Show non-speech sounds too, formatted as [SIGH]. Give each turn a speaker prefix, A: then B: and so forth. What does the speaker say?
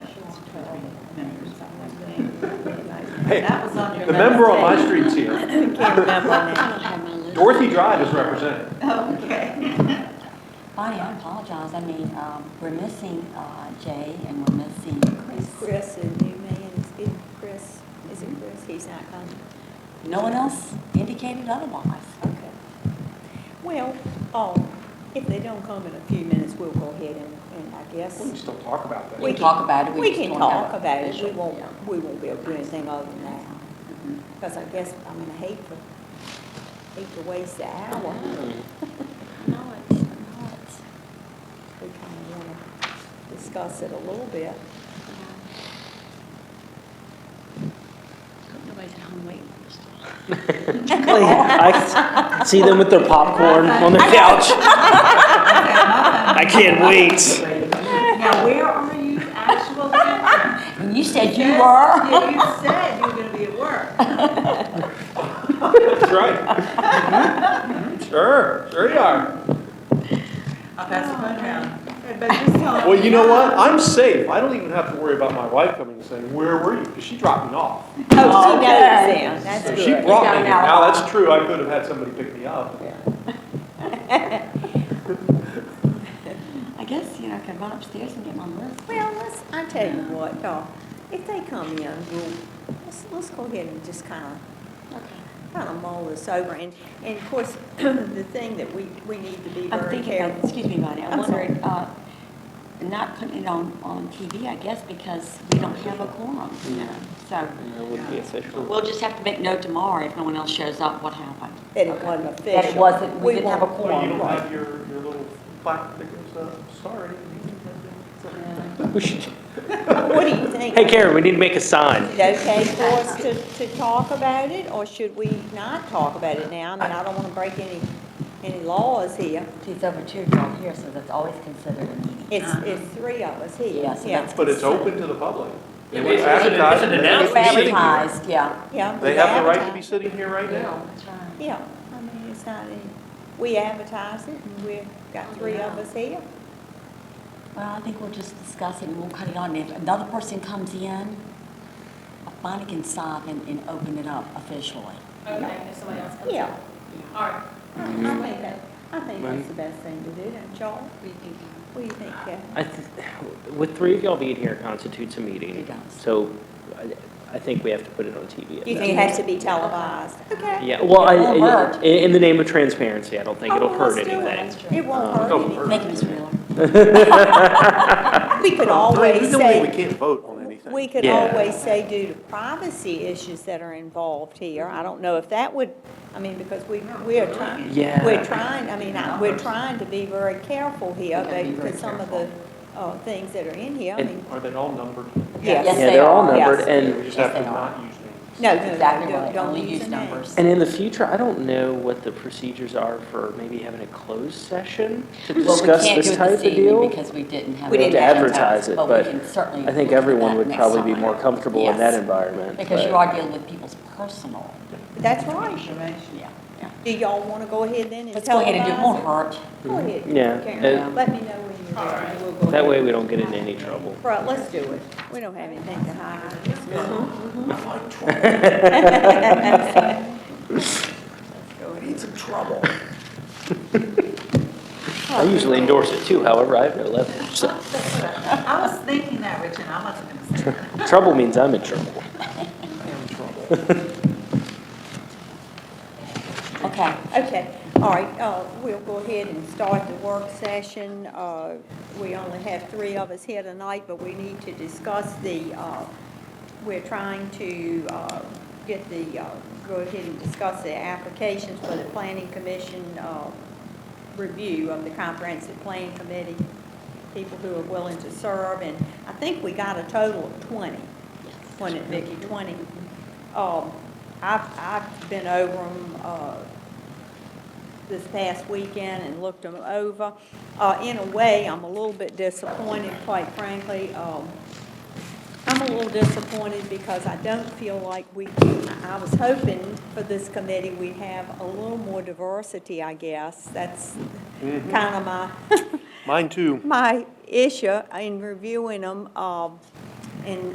A: members, I was
B: Hey,
A: That was on your
B: The member on my
A: last
B: street's here.
A: page. Can't remember
C: I don't have my list.
B: Dorothy Drive is represented. [LAUGHS]
A: now. Okay.
C: Bonnie, I apologize. I mean, um, we're missing uh, Jay and we're missing Chris.
D: Chris and you may, and it's getting Chris, is it Chris? He's not coming.
C: No one else indicated otherwise.
D: Okay. Well, um, if they don't come in a few minutes, we'll go ahead and, and I guess.
B: We can still talk about
C: We
B: that.
C: can talk about it, we
D: We
C: just
D: can
C: don't have
D: talk
C: a
D: about it, we
C: official,
D: won't,
C: yeah.
D: we won't be able to do anything other than that. Because I guess, I mean, I hate to, hate to waste the [LAUGHS] hour.
C: No, it's not.
D: We kind of want to discuss it a little bit.
C: Hope nobody's at home waiting for this.
E: I can see them with their popcorn on their couch. I can't wait.
A: Now, where are you [LAUGHS] actually?
C: And you said you were?
A: Yeah, you said you were gonna be at
D: [LAUGHS]
A: work.
B: That's right. [LAUGHS] Mm-hmm. Sure, sure you are.
A: I'll pass the phone around.
D: Oh,
A: Everybody just tell them-
B: Well, you know what? I'm safe. I don't even have to worry about my wife coming and saying, where were you? Because she dropped me off.
D: Oh, she knows
C: Okay.
D: them, that's
B: So
D: good.
B: she brought me.
C: You don't
B: here.
C: know.
B: Now, that's true. I could have had somebody pick me up.
C: I guess, you know, I could run upstairs and get my list.
D: Well, let's, I tell you what, uh, if they come in, we'll, let's, let's go ahead and just kind of kind of mull this over, and, and of course, [CLEARS THROAT] the thing that we, we need to be
C: I'm
D: very
C: thinking, about-
D: careful.
C: excuse me, Bonnie, I'm
D: I'm sorry.
C: wondering, uh, not putting it on, on TV, I guess, because we don't have a quorum, you know, so. We'll just have to make note tomorrow if no one else shows up, what happened.
D: That it wasn't official.
C: That it wasn't,
D: We
C: we didn't have a
D: won't-
B: Well, you don't
C: quorum.
B: have your, your little plaque that goes up, sorry.
E: We should-
D: What do you think?
E: Hey Karen, we need to make a sign.
D: Is it okay for us to, to talk about it, or should we not talk about it now? I mean, I don't want to break any, any laws here.
C: It's over two o'clock here, so that's always considered a meeting.
D: It's, it's three of us here.
C: Uh-huh. Yes, and
D: Yeah.
C: that's-
B: But it's open to the public.
F: Yeah,
B: It
F: but
B: was
F: it's- it's an- it's
B: advertised.
F: an
C: It's
F: announcement. Sitting here.
C: advertised, yeah.
D: Yeah.
B: They
D: we
B: have the right to be
D: advertise.
B: sitting here right now.
C: That's right.
D: Yeah, I mean, it's not Oh, any, we advertise it, and we've got three of us here.
C: Well, I think we'll just discuss it and we'll cut it on. If another person comes in, Bonnie can stop and, and open it up officially.
G: Okay, if somebody else comes.
D: Yeah.
G: All right,
D: I
E: Mm-hmm.
D: I think that, I think that's the best thing to do, don't y'all? What do you think, Kathy?
E: I th- With three of y'all being here constitutes a meeting.
C: It does.
E: So I- I think we have to put it on TV. at
D: Do you
E: that
D: think it has to be televised? Okay.
E: point. Yeah, well,
C: It won't
E: I-
C: hurt.
E: in in the name of transparency, I don't think
D: Oh,
E: it'll
D: well,
E: hurt
D: let's do it.
E: anything.
D: It won't
E: Um,
D: hurt
B: don't
D: anything.
B: hurt.
C: Thank you, Ms. Wheeler.
D: We could
B: We
D: always
B: don't think we
D: say,
B: can't vote on anything.
D: we could
E: Yeah.
D: always say due to privacy issues that are involved here. I don't know if that would, I mean, because we, we are trying,
E: Yeah.
D: we're trying, I mean, I- we're trying to be very careful here, because some of the, uh, things that are in here, I
E: And-
D: mean,
B: Are they all numbered?
D: yes.
C: Yes,
E: Yeah,
C: they
E: they're all
C: are.
E: numbered
D: Yes.
E: and.
B: We just have to
C: Yes, they are.
B: not use names.
D: no, no, no,
C: Exactly
D: don't,
C: right,
D: don't
C: only
D: use
C: use
D: the name.
C: numbers.
E: And in the future, I don't know what the procedures are for maybe having a closed session to
C: Well, we
E: discuss
C: can't do
E: this
C: it
E: type of
C: this evening
E: deal.
C: Because we didn't have.
D: We
C: it
D: didn't
E: advertise it, but
C: we can certainly
E: I think
C: look at
E: everyone
C: that
E: would
C: next
E: probably be
C: time.
E: more comfortable in that
C: Yes,
E: environment.
C: Because you
E: but-
C: are dealing with people's personal,
D: That's right.
A: Information.
C: yeah, yeah.
D: Do y'all wanna go ahead then and
C: Let's go ahead and do, it won't
D: televise
C: hurt.
D: it? Go ahead.
E: Mm-hmm. Yeah, Uh,
D: Karen.
C: and-
D: Let me know when you're ready, and we'll go ahead.
E: That way we don't get into any trouble.
D: Right, let's do it. We don't have anything to hide.
E: I usually endorse it too, however, I have no leverage. so
A: I was thinking that, Richard, I wasn't gonna say that.
E: Trouble means I'm in trouble.
C: Okay.
D: Okay, all right, uh, we'll go ahead and start the work session. Uh, we only have three of us here tonight, but we need to discuss the, uh, we're trying to, uh, get the, uh, go ahead and discuss the applications for the planning commission, uh, review of the comprehensive plan committee, people who are willing to serve, and I think we got a total of twenty. One at Vicky, 20. Um, I've, I've been over them, uh, this past weekend and looked them over. Uh, in a way, I'm a little bit disappointed, quite frankly. Um, I'm a little disappointed because I don't feel like we, I- I was hoping for this committee, we'd have a little more diversity, I guess. That's kind of my, [LAUGHS]
B: Mine too.
D: my issue in reviewing them, um, and